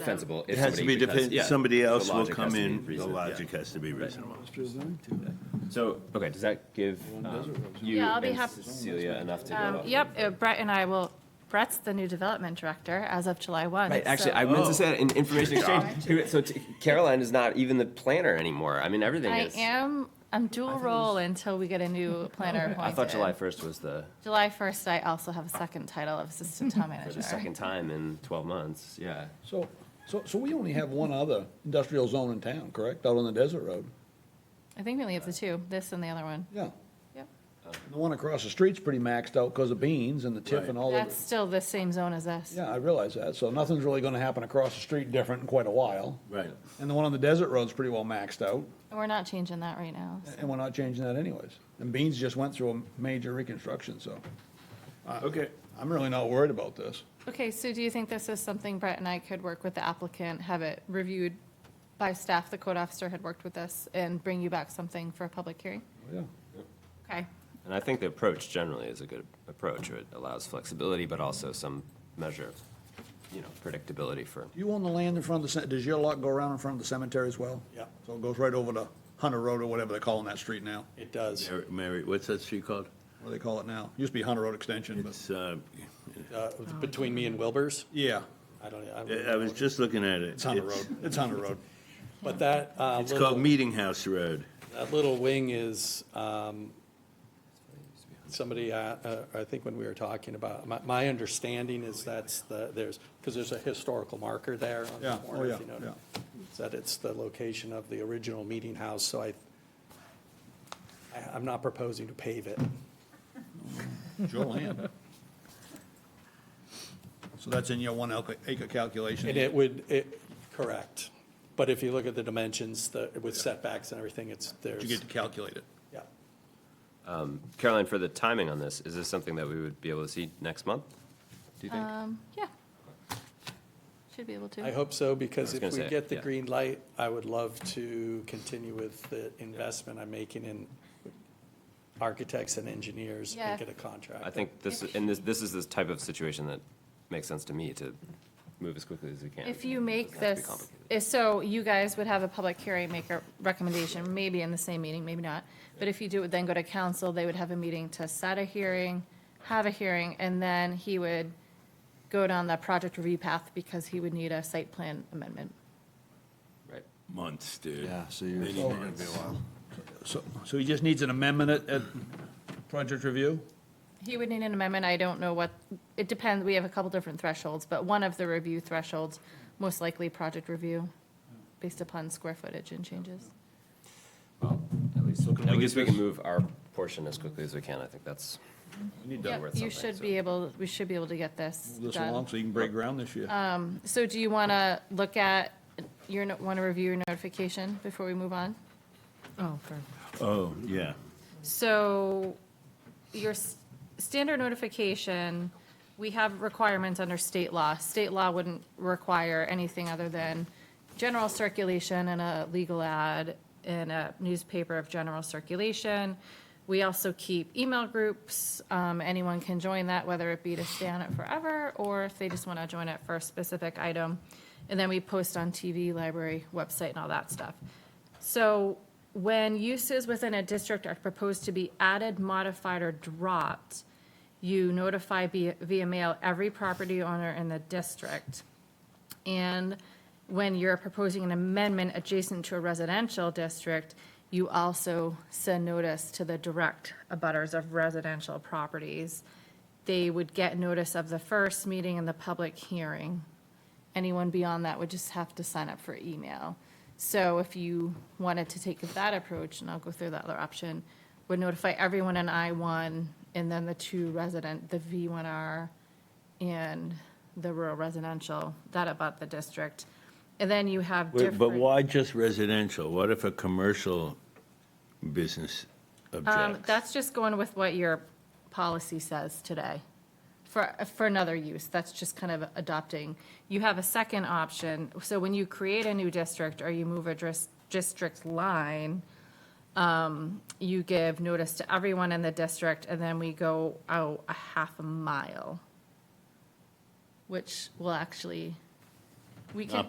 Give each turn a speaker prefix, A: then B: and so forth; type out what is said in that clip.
A: defensible. if
B: It has to be
A: somebody- because- yeah,
B: dependent, somebody
A: the
B: else will
A: logic has
B: come
A: to be
B: in, the
A: reasonable, yeah.
B: logic has to be reasonable.
A: So, okay, does that give um, you
C: Yeah, I'll be
A: and
C: happy-
A: Cecilia enough to go
C: Um,
A: off?
C: Yep, uh, Brett and I will, Brett's the new development director as of July 1.
A: Right, actually,
C: so-
A: I meant to say that in information exchange. So t- Caroline is not even the planner anymore. I mean, everything
C: I
A: is.
C: am, I'm dual role until we get a new planner appointed.
A: I thought July 1st was the,
C: July 1st, I also have a second title of assistant town
A: for
C: manager.
A: the second time in 12 months, yeah.
D: So, so, so we only have one other industrial zone in town, correct, out on the desert road?
C: I think we only have the two, this and the other one.
D: Yeah.
C: Yep.
D: The one across the street's pretty maxed out because of beans and the tip and all of
C: That's
D: it.
C: still the same zone as us.
D: Yeah, I realize that, so nothing's really gonna happen across the street different in quite a while.
B: Right.
D: And the one on the desert road's pretty well maxed out,
C: And We're not changing that right now. so.
D: and we're not changing that anyways. And beans just went through a major reconstruction, so
B: Okay.
D: I'm really not worried about this.
C: Okay, so do you think this is something Brett and I could work with the applicant, have it reviewed by staff, the code officer had worked with us, and bring you back something for a public hearing?
D: Yeah.
C: Okay.
A: And I think the approach generally is a good approach. It allows flexibility, but also some measure of, you know, predictability for.
D: You own the land in front of the, ce- does your lot go around in front of the cemetery as well?
E: Yeah.
D: So it goes right over to Hunter Road or whatever they're calling that street now,
E: It does.
B: Mary- Mary, what's that street called?
D: what do they call it now? Used to be Hunter Road Extension, but,
B: It's, uh,
E: Uh, Between me and Wilbur's,
D: yeah,
E: I don't,
B: I
E: I
B: I
E: don't
B: was
E: know.
B: just looking at it.
D: it's Hunter Road, it's Hunter Road.
E: But that, uh,
B: It's called
E: little,
B: Meeting House Road.
E: that little wing is, um, somebody, uh, uh, I think when we were talking about, my, my understanding is that's the, there's, because there's a historical marker there on the
D: Yeah, oh,
E: corner,
D: yeah,
E: if you notice. Is That it's the location of the original meeting house, so I, I- I'm not proposing to pave it.
D: It's your land. So that's in your one acre acre calculation?
E: And it would, it, correct. But if you look at the dimensions, the, with setbacks and everything, it's, there's.
D: You get to calculate it.
E: Yeah.
A: Caroline, for the timing on this, is this something that we would be able to see next month? Do you think?
C: Um, yeah. Should be able to.
E: I hope
A: I
E: so,
A: was
E: because if
A: gonna
E: we
A: say,
E: get the
A: yeah.
E: green light, I would love to continue with the investment I'm making in architects and engineers
C: Yeah.
E: and get a contract.
A: I think this, and this, this is the type of situation that makes sense to me to move as quickly as we can.
C: If you make
A: Doesn't have to be
C: this,
A: complicated.
C: if- so you guys would have a public hearing, make a recommendation, maybe in the same meeting, maybe not. But if you do, it, then go to council, they would have a meeting to set a hearing, have a hearing, and then he would go down the project review path because he would need a site plan amendment.
A: Right.
B: Months, dude.
F: Yeah, so you're-
B: They need to be a while.
D: So, so he just needs an amendment at, at project review?
C: He would need an amendment, I don't know what, it depends, we have a couple different thresholds, but one of the review thresholds, most likely project review, based upon square footage and changes.
A: At least,
D: can
A: at
D: we
A: least
D: get
A: we can
D: this-
A: move our portion as quickly as we can. I think that's.
C: Yep,
A: worth something,
C: You should
A: so-
C: be able, we should be able to get this
D: This
C: done.
D: along, so you can break ground this year.
C: So do you want to look at, your want to review your notification before we move on? Oh,
B: Oh, yeah.
C: So your s- standard notification, we have requirements under state law. State law wouldn't require anything other than general circulation and a legal ad in a newspaper of general circulation. We also keep email groups. Um, Anyone can join that, whether it be to stay on it forever or if they just want to join it for a specific item. And then we post on TV, library, website, and all that stuff. So when uses within a district are proposed to be added, modified, or dropped, you notify via via mail every property owner in the district. And when you're proposing an amendment adjacent to a residential district, you also send notice to the direct abutters of residential properties. They would get notice of the first meeting and the public hearing. Anyone beyond that would just have to sign up for email. So if you wanted to take that approach, and I'll go through the other option, would notify everyone in I-1 and then the two resident, the V1R and the rural residential, that about the district. And then you have different.
B: But why just residential? What if a commercial business
C: Um,
B: objects?
C: that's just going with what your policy says today for, for another use. That's just kind of adopting. You have a second option. So when you create a new district or you move a dris- district line, um, you give notice to everyone in the district and then we go out a half a mile, which will actually, we can.